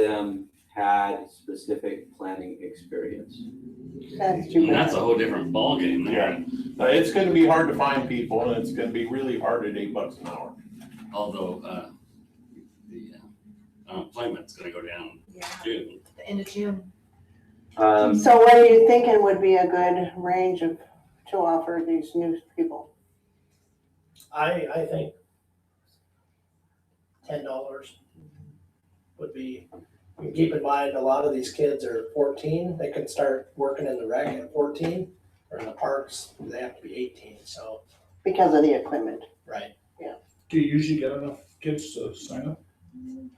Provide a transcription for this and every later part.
them had specific planning experience. That's And true. that's a whole different ballgame there, Uh, It's gonna be hard to find people and it's gonna be really hard at eight bucks an hour. although, uh, the uh, unemployment's gonna go down Yeah, June. the end of June. Um, So what are you thinking would be a good range of, to offer these new people? I, I think ten dollars would be, and keep in mind, a lot of these kids are fourteen, they can start working in the rec at fourteen, or in the parks, they have to be eighteen, so, Because of the equipment. right. Do you usually get enough kids to sign up?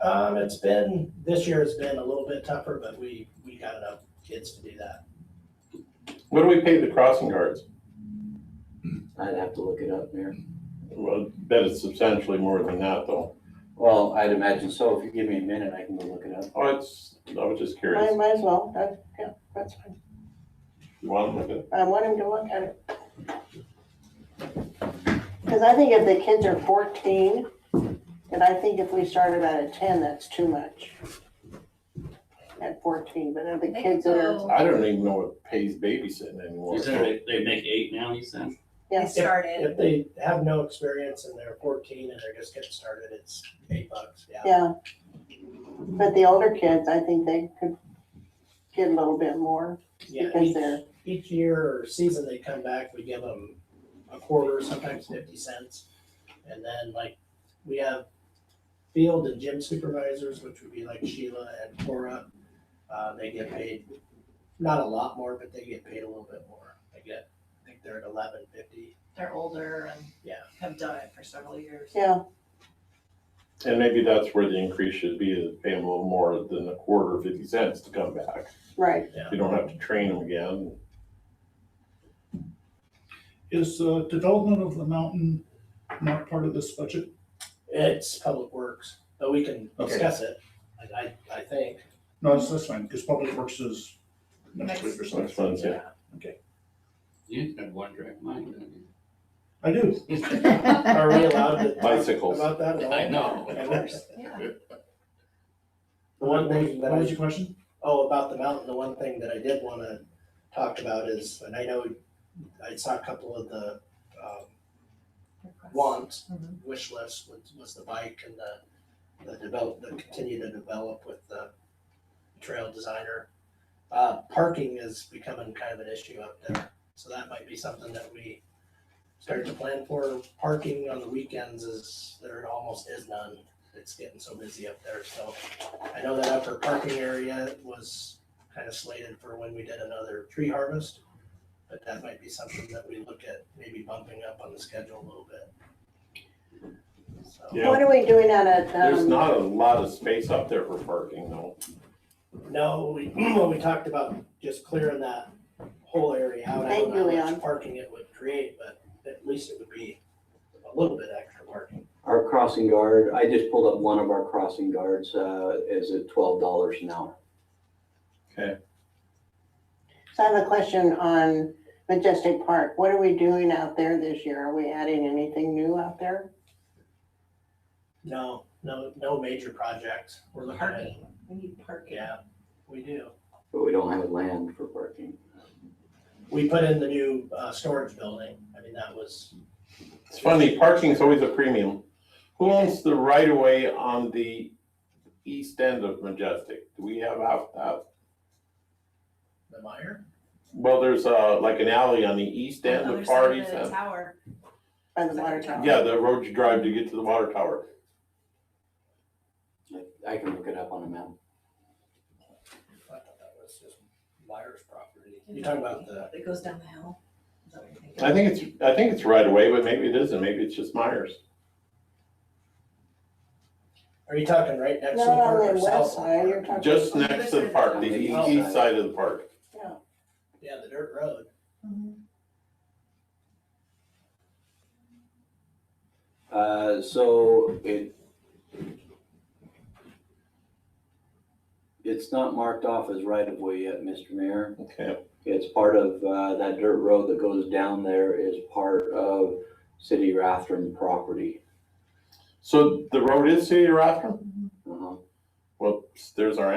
Um, it's been, this year has been a little bit tougher, but we, we got enough kids to do that. What do we pay the crossing guards? I'd have to look it up, Mayor. Well, bet it's substantially more than that though. Well, I'd imagine so. If you give me a minute, I can go look it up. Oh, it's, I was just Might, curious. might as well, that's, yeah, that's fine. You want them to? I want him to look at it. Because I think if the kids are fourteen, and I think if we started out at ten, that's too much. At fourteen, but if the They kids are, go- I don't even know what pays babysitting anymore. You said they, they make eight now, you said? They yes, started. If they have no experience and they're fourteen and they're just getting started, it's eight bucks, yeah. yeah. But the older kids, I think they could get a little bit more Yeah, because each- they're, each year or season they come back, we give them a quarter, sometimes fifty cents. And then like, we have field and gym supervisors, which would be like Sheila and Cora. Uh, they get paid, not a lot more, but they get paid a little bit more. They get, I think they're at eleven fifty. They're older and Yeah. have done it for several years. yeah, And maybe that's where the increase should be, is pay them a little more than a quarter, fifty cents to come back. right. You don't have to train them again. Is uh, development of the mountain not part of this budget? It's public works, but we can Okay. discuss it, I, I, I think. No, that's, that's fine, because public works is next Next. week or Next something. one's, yeah. You had one direct mind, didn't I do. Are we allowed to talk Bicycles. about that at you? all? I know, of Of course. course. Yeah. The one thing that What I. was your question? Oh, about the mountain, the one thing that I did wanna talk about is, and I know I saw a couple of the, um, wants, Mhm. wish list was, was the bike and the, the develop, the continue to develop with the trail designer. Uh, parking is becoming kind of an issue up there, so that might be something that we start to plan for. Parking on the weekends is, there almost is none, it's getting so busy up there, so. I know that upper parking area was kind of slated for when we did another tree harvest, but that might be something that we look at maybe bumping up on the schedule a little bit. So. Yeah. What are we doing out at, There's um, not a lot of space up there for parking though. No, we, when we talked about just clearing that whole area out, I Thank you, don't know how Leon. much parking it would create, but at least it would be a little bit extra parking. Our crossing guard, I just pulled up one of our crossing guards, uh, is at twelve dollars an hour. so I have a question on Majestic Park. What are we doing out there this year? Are we adding anything new out there? No, no, no major projects. We're looking at, Parking, we need parking. yeah, we do. But we don't have land for parking. We put in the new, uh, storage building. I mean, that was It's funny, parking's always a premium. Who owns the right of way on the east end of Majestic? Do we have out, out? the Meyer. Well, there's uh like an alley on the east end Other of side parties the and, Tower. By the water tower? yeah, the road you drive to get to the water tower. I- I can look it up on a map. I thought that was just Meyer's property. You're talking about the, That goes down the hill. Is that what you're thinking? I think it's, I think it's right away, but maybe it isn't, maybe it's just Myers. are you talking right next to the Not park on or the south? west of the side, you're park? talking. Just next to the park, the e- east side of the park. Yeah, the dirt road. Mhm. Uh, so it. It's not marked off as right of way yet, Mr. Mayor. Okay, It's part of, uh, that dirt road that goes down there is part of city Rathrum property. so the road is City of Rathrum? Uh-huh. Well, there's our